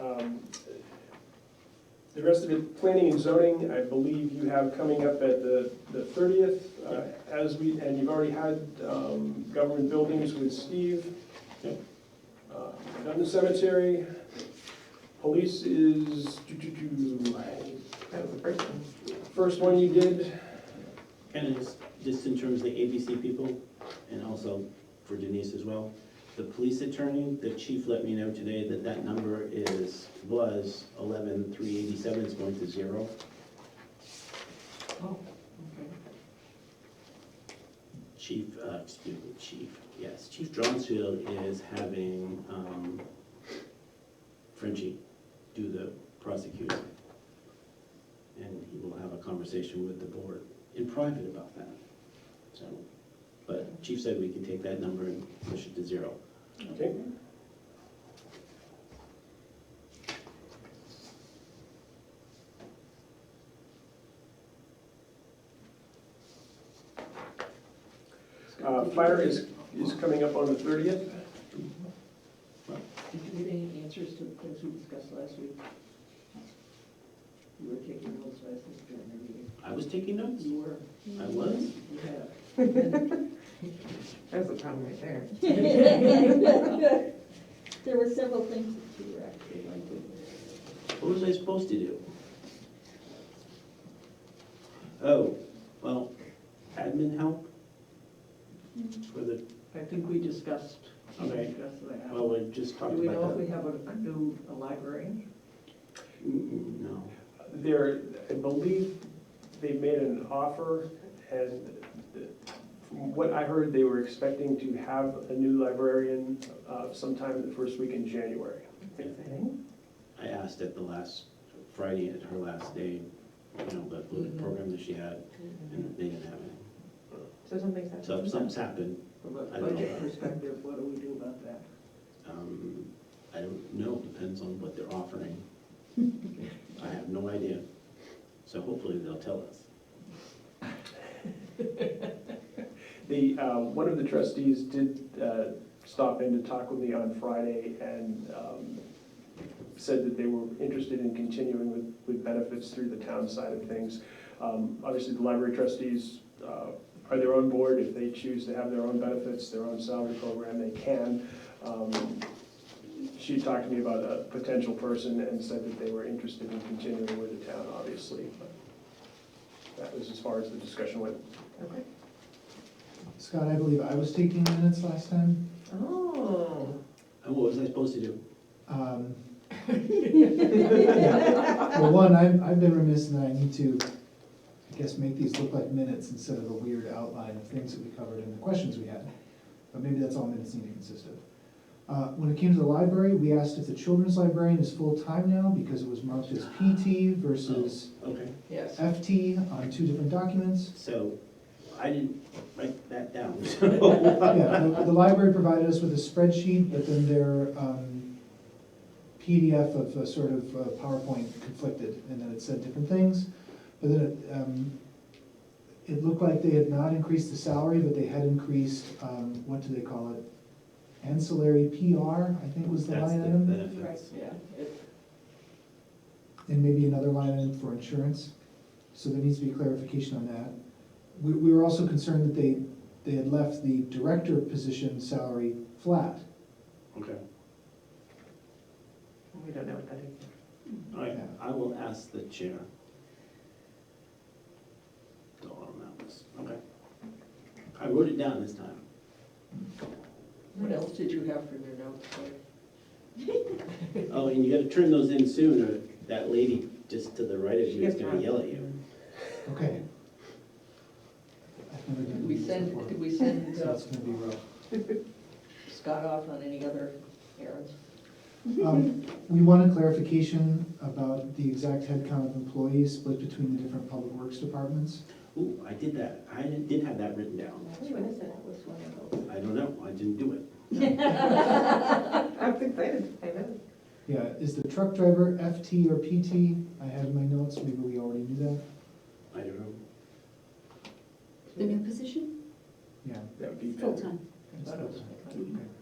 Um, The rest of it, planning and zoning, I believe you have coming up at the the 30th, uh, as we, and you've already had um, government buildings with Steve. Yep. Uh, Done the cemetery. Police is, do, do, do, That was the first one. first one you did, Kind of just, just in terms of the ABC people, and also for Denise as well. The police attorney, the chief let me know today that that number is, was eleven three eighty-seven, it's going to zero. Oh, Chief, uh, excuse me, chief, yes, Chief Dronsfield is having, um, Frenchie do the prosecuting. And he will have a conversation with the board in private about that, so. But Chief said we can take that number and push it to zero. okay? Uh, Fire is, is coming up on the 30th. okay. Did you get any answers to the things we discussed last week? You were taking notes last week during the meeting. I was taking notes, You were, I was, you have. That's the problem right there. There were several things that you were actually going to. what was I supposed to do? Oh, well, admin help? For the, I think we discussed, we Okay. discussed that. well, we just Do talked about that. we know if we have a a new a librarian? Mm, No. There, I believe they made an offer, and from what I heard, they were expecting to have a new librarian uh, sometime the first week in January. Exciting. I asked at the last, Friday at her last day, you know, the the Mhm. program that she had, and they didn't have it. So something's happening. Mm-hmm. So if something's happened, From a I don't know. budget perspective, what do we do about that? um, I don't know, depends on what they're offering. I have no idea. So hopefully they'll tell us. The, uh, one of the trustees did uh, stop in to talk with me on Friday and um, said that they were interested in continuing with, with benefits through the town side of things. Um, Obviously, the library trustees uh, are their own board. If they choose to have their own benefits, their own salary program, they can. Um, She talked to me about a potential person and said that they were interested in continuing with the town, obviously. but That was as far as the discussion went. Okay. Scott, I believe I was taking minutes last time. Oh. And what was I supposed to do? Um, Well, one, I've, I've been remiss in that I need to, I guess, make these look like minutes instead of a weird outline of things that we covered and the questions we had. But maybe that's all minutes need to consist of. Uh, When it came to the library, we asked if the children's librarian is full-time now because it was marked as PT versus Okay, Yes. FT on two different documents. so I didn't write that down. Yeah, the, the library provided us with a spreadsheet, but then their um, PDF of a sort of uh, PowerPoint conflicted, and then it said different things. But then it, um, it looked like they had not increased the salary, but they had increased, um, what do they call it? Ancillary PR, I think was the That's line the item, benefits. Yeah, it- and maybe another line item for insurance. So there needs to be clarification on that. We, we were also concerned that they, they had left the director position salary flat. Okay, We don't know what that is. all right, I will ask the chair. Dollar amount was, okay. I wrote it down this time. What else did you have from your notes, Claire? Oh, and you gotta turn those in soon, or that lady just to the right of She you is gets gonna mad. yell at you. Okay. I've never done Did we this before, send, did we send So uh, it's gonna be rough. Scott off on any other errands? Um, We want a clarification about the exact headcount of employees split between the different public works departments. Ooh, I did that, I did have that written down. Which one is it? That was one of those. I don't know, I didn't do it. I was excited, I know. Yeah, is the truck driver FT or PT? I had my notes, maybe we already knew that. I don't know. The new position, Yeah. That would be better. full-time. I thought it was- Okay.